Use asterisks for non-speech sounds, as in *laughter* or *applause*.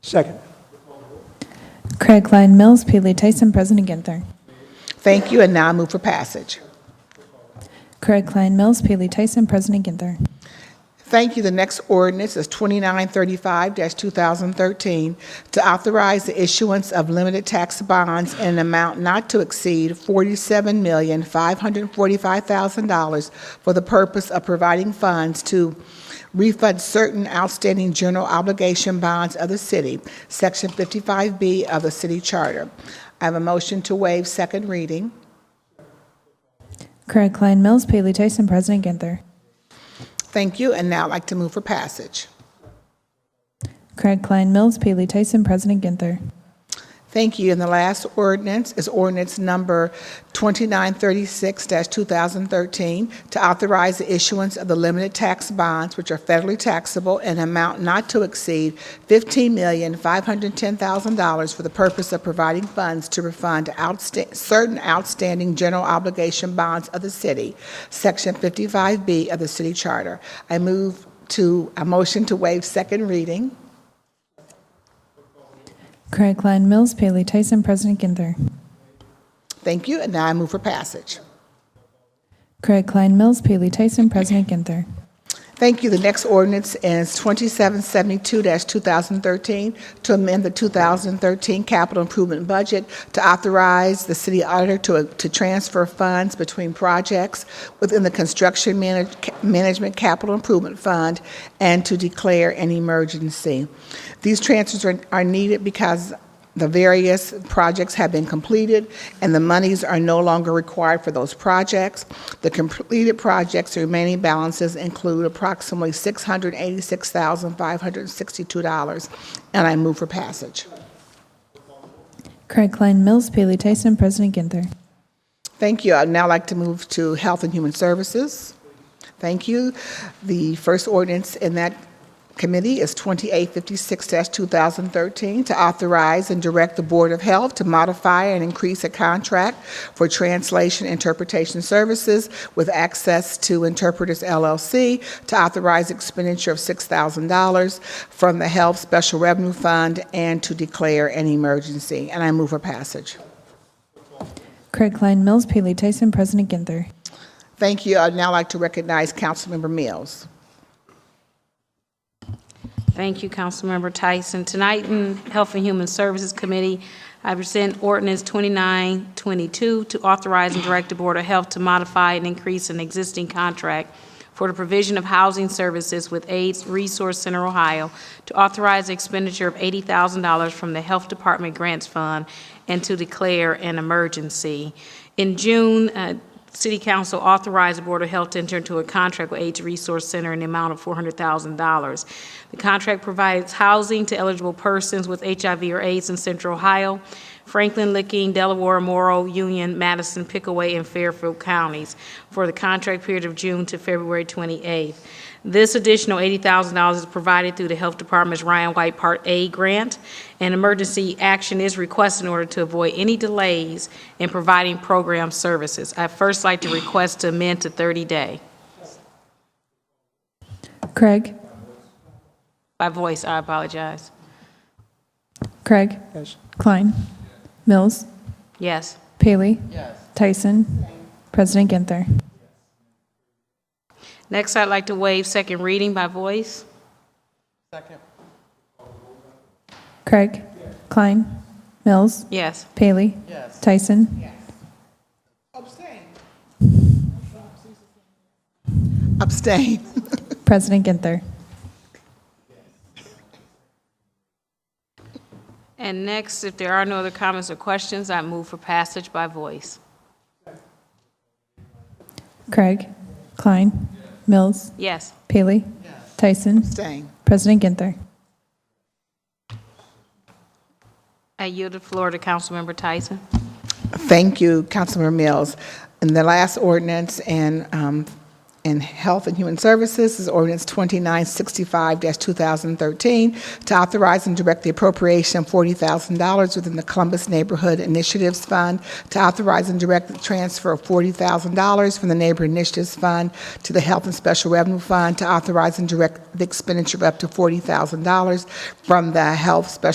Second. Craig Klein Mills, Paley Tyson, President Ginther. Thank you, and now I move for passage. Craig Klein Mills, Paley Tyson, President Ginther. Thank you. The next ordinance is 2935-2013 to authorize the issuance of limited tax bonds in an amount not to exceed $47,545,000 for the purpose of providing funds to refund certain outstanding general obligation bonds of the city, Section 55B of the city charter. I have a motion to waive second reading. Craig Klein Mills, Paley Tyson, President Ginther. Thank you, and now I'd like to move for passage. Craig Klein Mills, Paley Tyson, President Ginther. Thank you. And the last ordinance is ordinance number 2936-2013 to authorize the issuance of the limited tax bonds, which are federally taxable, in amount not to exceed $15,510,000 for the purpose of providing funds to refund outsta- certain outstanding general obligation bonds of the city, Section 55B of the city charter. I move to, a motion to waive second reading. Craig Klein Mills, Paley Tyson, President Ginther. Thank you. And now I move for passage. Craig Klein Mills, Paley Tyson, President Ginther. Thank you. The next ordinance is 2772-2013 to amend the 2013 capital improvement budget to authorize the city auditor to to transfer funds between projects within the construction manage- management capital improvement fund and to declare an emergency. These transfers are- are needed because the various projects have been completed, and the monies are no longer required for those projects. The completed projects' remaining balances include approximately $686,562, and I move for passage. Craig Klein Mills, Paley Tyson, President Ginther. Thank you. I'd now like to move to Health and Human Services. Thank you. The first ordinance in that committee is 2856-2013 to authorize and direct the Board of Health to modify and increase a contract for translation interpretation services with access to Interpreters LLC to authorize expenditure of $6,000 from the Health Special Revenue Fund and to declare an emergency. And I move for passage. Craig Klein Mills, Paley Tyson, President Ginther. Thank you. I'd now like to recognize Councilmember Mills. Thank you, Councilmember Tyson. Tonight in Health and Human Services Committee, I present ordinance 2922 to authorize and direct the Board of Health to modify and increase an existing contract for the provision of housing services with AIDS Resource Center Ohio to authorize the expenditure of $80,000 from the Health Department Grants Fund and to declare an emergency. In June, uh, City Council authorized the Board of Health to enter into a contract with AIDS Resource Center in the amount of $400,000. The contract provides housing to eligible persons with HIV or AIDS in Central Ohio, Franklin, Licking, Delaware, Morrow, Union, Madison, Pickaway, and Fairfield counties for the contract period of June to February 28th. This additional $80,000 is provided through the Health Department's Ryan White Part A grant, and emergency action is requested in order to avoid any delays in providing program services. I'd first like to request to amend to 30-day. Craig. By voice, I apologize. Craig. Yes. Klein. Mills. Yes. Paley. Tyson. President Ginther. Next, I'd like to waive second reading by voice. Craig. Klein. Mills. Yes. Paley. Tyson. Abstain. *laughs* President Ginther. And next, if there are no other comments or questions, I move for passage by voice. Craig. Klein. Mills. Yes. Paley. Tyson. Abstain. President Ginther. I yield the floor to Councilmember Tyson. Thank you, Councilmember Mills. And the last ordinance in, um, in Health and Human Services is ordinance 2965-2013 to authorize and direct the appropriation of $40,000 within the Columbus Neighborhood Initiatives Fund to authorize and direct the transfer of $40,000 from the Neighborhood Initiatives Fund to the Health and Special Revenue Fund to authorize and direct the expenditure of up to $40,000 from the Health Special